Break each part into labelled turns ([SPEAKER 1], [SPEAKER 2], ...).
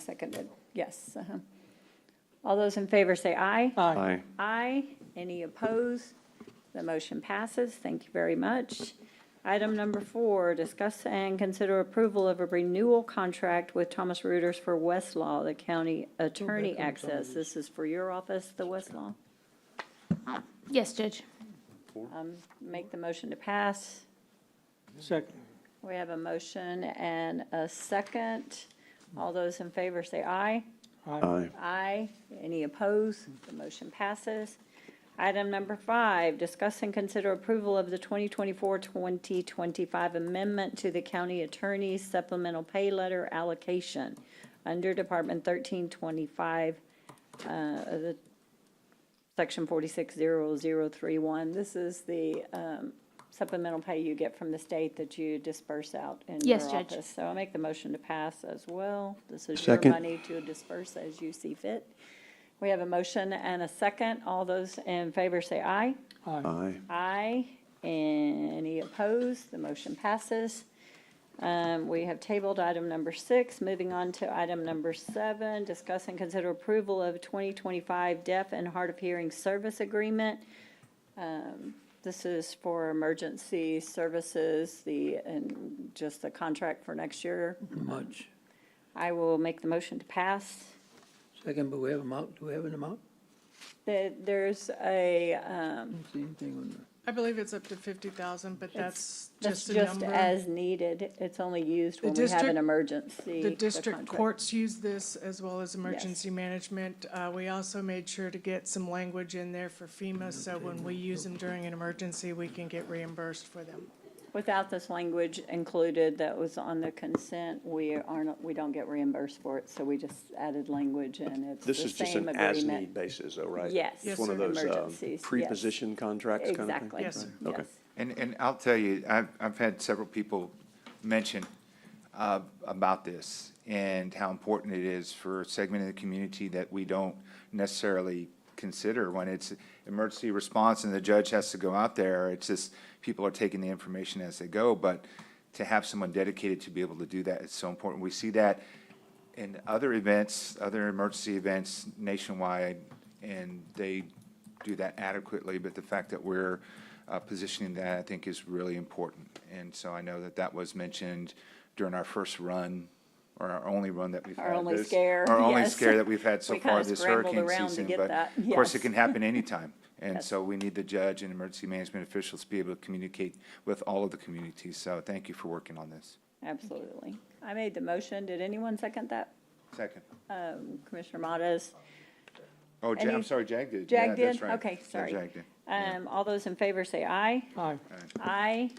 [SPEAKER 1] seconded, yes. uh-huh. All those in favor say aye.
[SPEAKER 2] Aye.
[SPEAKER 1] Aye. Any opposed? The motion passes. Thank you very much. Item number four, discuss and consider approval of a renewal contract with Thomas Reuters for Westlaw, the county attorney access. This is for your office, the Westlaw.
[SPEAKER 3] Yes, Judge.
[SPEAKER 1] Um, Make the motion to pass.
[SPEAKER 2] Second.
[SPEAKER 1] We have a motion and a second. All those in favor say aye.
[SPEAKER 2] Aye.
[SPEAKER 1] Aye. Any opposed? The motion passes. Item number five, discuss and consider approval of the 2024-2025 amendment to the county attorney's supplemental pay letter allocation under Department 1325, uh, of the Section 460031. This is the um, supplemental pay you get from the state that you disperse out in your
[SPEAKER 3] Yes, Judge.
[SPEAKER 1] office. So I make the motion to pass as well. This is your
[SPEAKER 2] Second.
[SPEAKER 1] money to disperse as you see fit. We have a motion and a second. All those in favor say aye.
[SPEAKER 2] Aye.
[SPEAKER 1] Aye. Any opposed? The motion passes. Um, We have tabled item number six. Moving on to item number seven, discuss and consider approval of 2025 deaf and hard of hearing service agreement. Um, This is for emergency services, the, and just the contract for next year.
[SPEAKER 4] Much.
[SPEAKER 1] I will make the motion to pass.
[SPEAKER 4] Second, but we have amount, do we have an amount?
[SPEAKER 1] There- There's a, um,
[SPEAKER 4] Don't see anything on the,
[SPEAKER 5] I believe it's up to fifty thousand, but that's
[SPEAKER 1] that's
[SPEAKER 5] just a
[SPEAKER 1] just
[SPEAKER 5] number.
[SPEAKER 1] as needed. It's only used
[SPEAKER 5] The
[SPEAKER 1] when we have an
[SPEAKER 5] district-
[SPEAKER 1] emergency.
[SPEAKER 5] The district
[SPEAKER 1] contract.
[SPEAKER 5] courts use this as well as emergency management. Uh, we also made sure to get some language in there for FEMA, so when we use them during an emergency, we can get reimbursed for them.
[SPEAKER 1] Without this language included that was on the consent, we aren't, we don't get reimbursed for it, so we just added language and it's the
[SPEAKER 6] This is just
[SPEAKER 1] same
[SPEAKER 6] an as-need
[SPEAKER 1] agreement.
[SPEAKER 6] basis, though, right?
[SPEAKER 1] Yes.
[SPEAKER 6] It's
[SPEAKER 5] Yes,
[SPEAKER 6] one of
[SPEAKER 5] sir.
[SPEAKER 6] those
[SPEAKER 2] um,
[SPEAKER 6] uh,
[SPEAKER 1] Emergencies, yes.
[SPEAKER 6] pre-position contracts kind of thing?
[SPEAKER 1] Exactly.
[SPEAKER 5] Yes, sir.
[SPEAKER 6] Okay.
[SPEAKER 1] yes.
[SPEAKER 7] And, and I'll tell you, I've, I've had several people mention uh, about this and how important it is for a segment of the community that we don't necessarily consider when it's emergency response and the judge has to go out there. It's just, people are taking the information as they go, but to have someone dedicated to be able to do that is so important. We see that in other events, other emergency events nationwide, and they do that adequately, but the fact that we're uh, positioning that, I think, is really important. And so I know that that was mentioned during our first run, or our only run that we've had.
[SPEAKER 1] Our only
[SPEAKER 7] this-
[SPEAKER 1] scare,
[SPEAKER 7] Our only
[SPEAKER 1] yes.
[SPEAKER 7] scare that we've had so
[SPEAKER 1] We kinda
[SPEAKER 7] far this
[SPEAKER 1] scrambled
[SPEAKER 7] hurricane
[SPEAKER 1] around to
[SPEAKER 7] season.
[SPEAKER 1] get
[SPEAKER 7] But
[SPEAKER 1] that,
[SPEAKER 7] of course, it
[SPEAKER 1] yes.
[SPEAKER 7] can happen anytime. And
[SPEAKER 1] Yes.
[SPEAKER 7] so we need the judge and emergency management officials to be able to communicate with all of the communities. So thank you for working on this.
[SPEAKER 1] Absolutely. I made the motion. Did anyone second that?
[SPEAKER 7] Second.
[SPEAKER 1] Um, Commissioner Modas?
[SPEAKER 7] Oh, Ja-
[SPEAKER 1] Any-
[SPEAKER 7] I'm sorry, Jag did.
[SPEAKER 1] Jag
[SPEAKER 7] Yeah,
[SPEAKER 1] did?
[SPEAKER 7] that's right.
[SPEAKER 1] Okay,
[SPEAKER 7] Yeah,
[SPEAKER 1] sorry.
[SPEAKER 7] Jag did. Yeah.
[SPEAKER 1] Um, all those in favor say aye.
[SPEAKER 2] Aye.
[SPEAKER 1] Aye.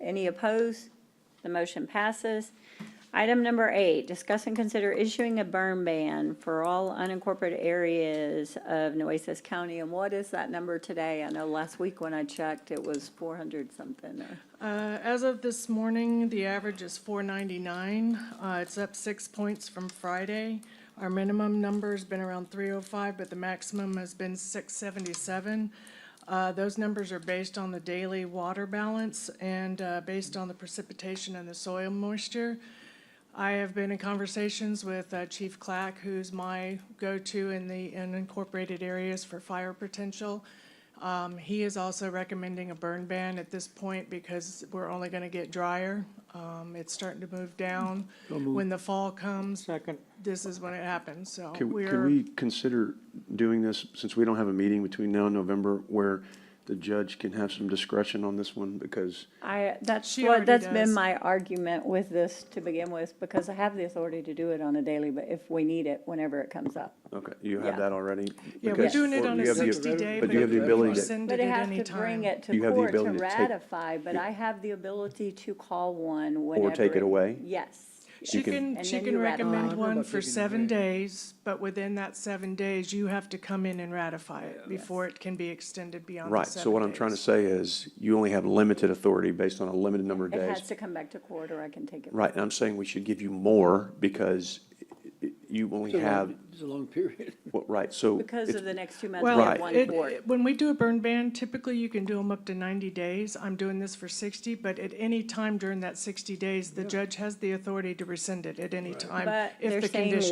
[SPEAKER 1] Any opposed? The motion passes. Item number eight, discuss and consider issuing a burn ban for all unincorporated areas of Nueces County. And what is that number today? I know last week when I checked, it was four hundred something or.
[SPEAKER 5] Uh, as of this morning, the average is four ninety-nine. Uh, it's up six points from Friday. Our minimum number's been around three oh five, but the maximum has been six seventy-seven. Uh, those numbers are based on the daily water balance and, uh, based on the precipitation and the soil moisture. I have been in conversations with uh, Chief Clack, who's my go-to in the unincorporated areas for fire potential. Um, He is also recommending a burn ban at this point because we're only going to get drier. Um, It's starting to move down. When the fall comes,
[SPEAKER 2] Second.
[SPEAKER 5] this is when it happens, so
[SPEAKER 2] Can, can
[SPEAKER 5] Oh, we're,
[SPEAKER 2] we consider doing this, since we don't have a meeting between now and November, where the judge can have some discretion on this one? Because
[SPEAKER 1] I, that's
[SPEAKER 5] She
[SPEAKER 1] what,
[SPEAKER 5] already
[SPEAKER 1] that's been
[SPEAKER 5] does.
[SPEAKER 1] my argument with this to begin with, because I have the authority to do it on a daily, but if we need it, whenever it comes up.
[SPEAKER 2] Okay, you
[SPEAKER 1] Yeah.
[SPEAKER 2] have that already?
[SPEAKER 5] yeah, we're
[SPEAKER 2] Because-
[SPEAKER 5] doing it
[SPEAKER 2] or
[SPEAKER 5] on a
[SPEAKER 2] you have the-
[SPEAKER 5] sixty-day,
[SPEAKER 2] But
[SPEAKER 5] but
[SPEAKER 2] you have the
[SPEAKER 5] you
[SPEAKER 2] ability
[SPEAKER 5] can
[SPEAKER 2] to,
[SPEAKER 5] rescind
[SPEAKER 1] But
[SPEAKER 5] it
[SPEAKER 1] I
[SPEAKER 5] at
[SPEAKER 1] have
[SPEAKER 5] any
[SPEAKER 1] to bring
[SPEAKER 5] time.
[SPEAKER 1] it to
[SPEAKER 2] You have the
[SPEAKER 1] court to
[SPEAKER 2] ability to take-
[SPEAKER 1] ratify, but I have the ability to call one whenever.
[SPEAKER 2] take it away?
[SPEAKER 1] Yes.
[SPEAKER 5] She
[SPEAKER 2] You can-
[SPEAKER 5] can,
[SPEAKER 1] And
[SPEAKER 5] she
[SPEAKER 1] then
[SPEAKER 5] can
[SPEAKER 1] you ratify.
[SPEAKER 5] recommend
[SPEAKER 4] Oh,
[SPEAKER 5] one
[SPEAKER 4] but
[SPEAKER 5] for
[SPEAKER 4] you can
[SPEAKER 5] seven
[SPEAKER 4] agree.
[SPEAKER 5] days, but within that seven days, you have to come in and ratify it
[SPEAKER 1] Oh,
[SPEAKER 5] before it can be extended beyond the
[SPEAKER 2] right,
[SPEAKER 5] seven days.
[SPEAKER 2] so what I'm trying to say is, you only have limited authority based on a limited number of
[SPEAKER 1] It has
[SPEAKER 2] days.
[SPEAKER 1] to come back to court or I can take it.
[SPEAKER 2] Right, and I'm saying we should give you more, because i- i- you only have,
[SPEAKER 4] it's a long period.
[SPEAKER 2] well, right, so.
[SPEAKER 1] Because
[SPEAKER 2] it's-
[SPEAKER 1] of the next two months, we
[SPEAKER 5] Well,
[SPEAKER 1] have
[SPEAKER 2] Right.
[SPEAKER 1] one
[SPEAKER 5] it-
[SPEAKER 1] court.
[SPEAKER 5] it- when we do a burn ban, typically you can do them up to ninety days. I'm doing this for sixty, but at any time during that sixty days, the judge has the authority to rescind it at any time
[SPEAKER 1] But
[SPEAKER 5] if
[SPEAKER 1] they're
[SPEAKER 5] the
[SPEAKER 1] saying
[SPEAKER 5] condition.